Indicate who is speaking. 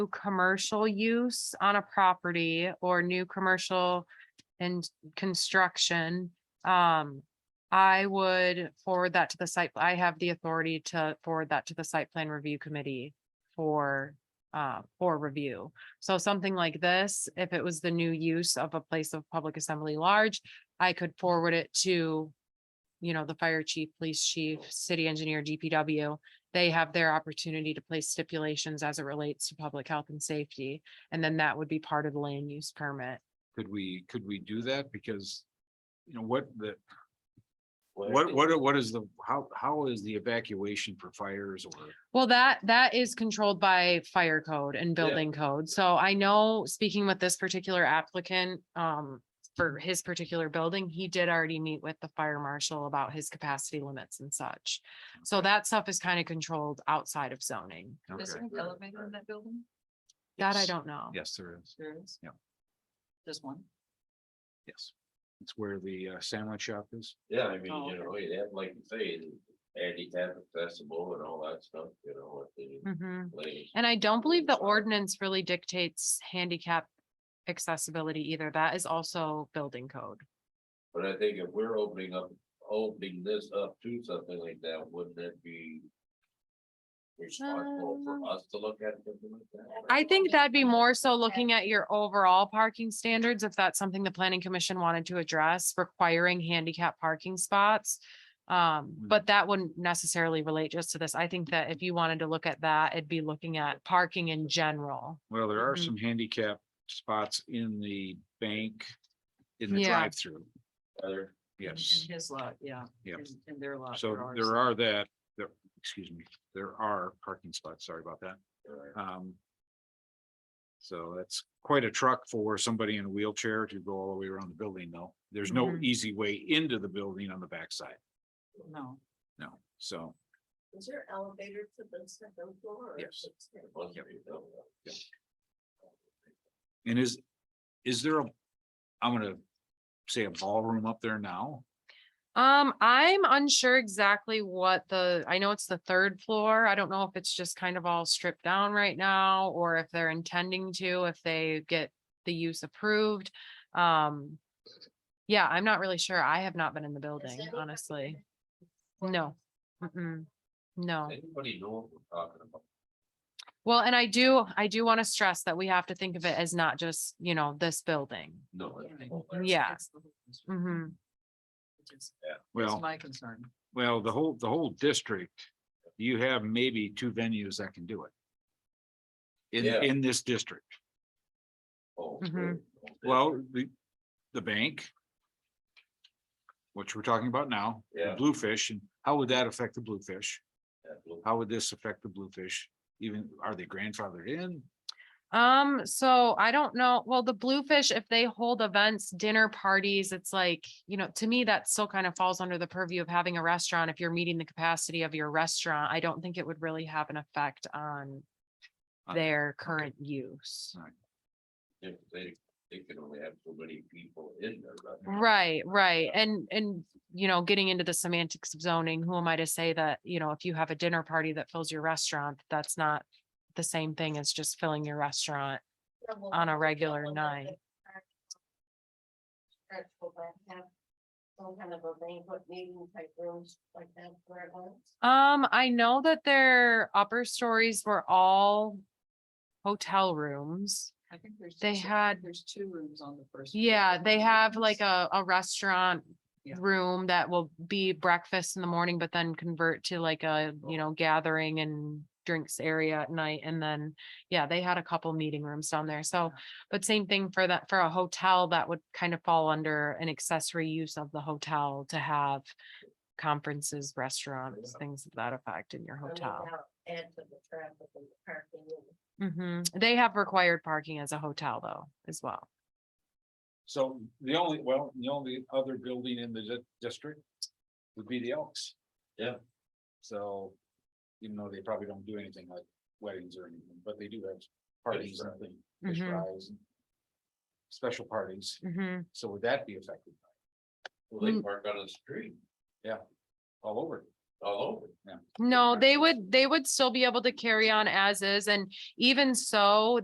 Speaker 1: commercial use on a property or new commercial and construction, um, I would forward that to the site. I have the authority to forward that to the site plan review committee for, uh, for review. So something like this, if it was the new use of a place of public assembly large, I could forward it to, you know, the fire chief, police chief, city engineer, DPW. They have their opportunity to place stipulations as it relates to public health and safety. And then that would be part of the land use permit.
Speaker 2: Could we, could we do that? Because, you know, what the, what, what, are- what is the, how, how is the evacuation for fires or?
Speaker 1: Well, that, that is controlled by fire code and building code. So I know, speaking with this particular applicant, um, for his particular building, he did already meet with the fire marshal about his capacity limits and such. So that stuff is kind of controlled outside of zoning.
Speaker 3: Is there
Speaker 2: Okay.
Speaker 3: an elevator in that building?
Speaker 1: That I
Speaker 2: Yes.
Speaker 1: don't know.
Speaker 2: Yes, there is.
Speaker 3: There is?
Speaker 2: Yeah.
Speaker 3: There's one.
Speaker 2: Yes. It's where the uh, sandwich shop is.
Speaker 4: Yeah, I mean,
Speaker 3: Oh,
Speaker 4: you
Speaker 3: okay.
Speaker 4: know, you have, like you say, handicap accessible and all that stuff, you know, what they.
Speaker 1: Mhm.
Speaker 4: lay-
Speaker 1: And I don't believe the
Speaker 4: Sorry.
Speaker 1: ordinance really dictates handicap accessibility either. That is also building code.
Speaker 4: But I think if we're opening up, opening this up to something like that, wouldn't it be? Responsible for
Speaker 1: Um,
Speaker 4: us to look at something like that?
Speaker 1: I think that'd be more so looking at your overall parking standards, if that's something the planning commission wanted to address, requiring handicap parking spots. Um, but that wouldn't necessarily relate just to this. I think that if you wanted to look at that, it'd be looking at parking in general.
Speaker 2: Well, there are
Speaker 1: Mhm.
Speaker 2: some handicap spots in the bank, in the
Speaker 1: Yeah.
Speaker 2: drive-through.
Speaker 4: Other-
Speaker 3: In- in
Speaker 2: Yes,
Speaker 3: His lot, yeah.
Speaker 2: Yeah.
Speaker 3: in- In their lot.
Speaker 2: so Mm-hmm. there are that, there, excuse me, there are parking spots. Sorry about that.
Speaker 4: or-
Speaker 2: Um. So that's quite a truck for somebody in a wheelchair to go all the way around the building, though. There's no
Speaker 1: Mhm.
Speaker 2: easy way into the building on the backside,
Speaker 3: No.
Speaker 2: no, so.
Speaker 3: Is there elevator to the second floor?
Speaker 2: Yes.
Speaker 4: must be done.
Speaker 2: And is, is there a, I'm gonna say a ballroom up there now?
Speaker 1: Um, I'm unsure exactly what the, I know it's the third floor. I don't know if it's just kind of all stripped down right now or if they're intending to, if they get the use approved. Um, yeah, I'm not really sure. I have not been in the building, honestly. No. Mm-mm. No.
Speaker 4: Anybody know what we're talking about?
Speaker 1: Well, and I do, I do want to stress that we have to think of it as not just, you know, this building.
Speaker 4: No. I think-
Speaker 1: Yeah.
Speaker 3: That's the whole concern,
Speaker 1: hmm
Speaker 3: which is- That's
Speaker 2: Well,
Speaker 3: my concern.
Speaker 2: well, the whole, the whole district, you have maybe two venues that can do it. In,
Speaker 4: Yeah.
Speaker 2: in this district.
Speaker 4: Oh,
Speaker 1: Mhm.
Speaker 4: okay.
Speaker 2: Well, the, the bank. Which we're talking about now, the
Speaker 4: Yeah.
Speaker 2: Bluefish, and how would that affect the Bluefish?
Speaker 4: That will-
Speaker 2: How would this affect the Bluefish? Even, are they grandfathered in?
Speaker 1: Um, so I don't know. Well, the Bluefish, if they hold events, dinner parties, it's like, you know, to me, that still kind of falls under the purview of having a restaurant. If you're meeting the capacity of your restaurant, I don't think it would really have an effect on
Speaker 2: Uh,
Speaker 1: their current use.
Speaker 4: If they, they can only have so many people in there.
Speaker 1: Right,
Speaker 4: right?
Speaker 1: right. And, and, you know, getting into the semantics of zoning, who am I to say that, you know, if you have a dinner party that fills your restaurant, that's not the same thing as just filling your restaurant on a regular night.
Speaker 5: Go back, have some kind of a banquet meeting type rooms like that for events.
Speaker 1: Um, I know that their upper stories were all hotel rooms.
Speaker 3: I think there's.
Speaker 1: They
Speaker 3: just- I think
Speaker 1: had-
Speaker 3: There's two rooms on the first. floor.
Speaker 1: Yeah, they have like a, a restaurant
Speaker 3: Yeah.
Speaker 1: room that will be breakfast in the morning, but then convert to like a, you
Speaker 3: Oh.
Speaker 1: know, gathering and drinks area at night. And then, yeah, they had a couple meeting rooms down there. So,
Speaker 3: Yeah.
Speaker 1: but same thing for that, for a hotel that would kind of fall under an accessory use of the hotel to have conferences, restaurants, things of that effect in your
Speaker 5: I mean,
Speaker 1: hotel.
Speaker 5: that'll Add to the traffic and the parking. and-
Speaker 1: hmm They have required parking as a hotel though, as well.
Speaker 2: So the only, well, the only other building in the di- district would be the Elks.
Speaker 4: Yeah.
Speaker 2: So, even though they probably don't do anything like weddings or anything, but they do have parties and things, fish
Speaker 1: Mhm.
Speaker 2: fries. and Special parties,
Speaker 1: Mhm.
Speaker 2: so would that be affected
Speaker 4: Well, they
Speaker 1: Mm.
Speaker 4: park on the street.
Speaker 2: all over?
Speaker 4: all over.
Speaker 1: No, they would, they would still be able to carry on as is, and even so,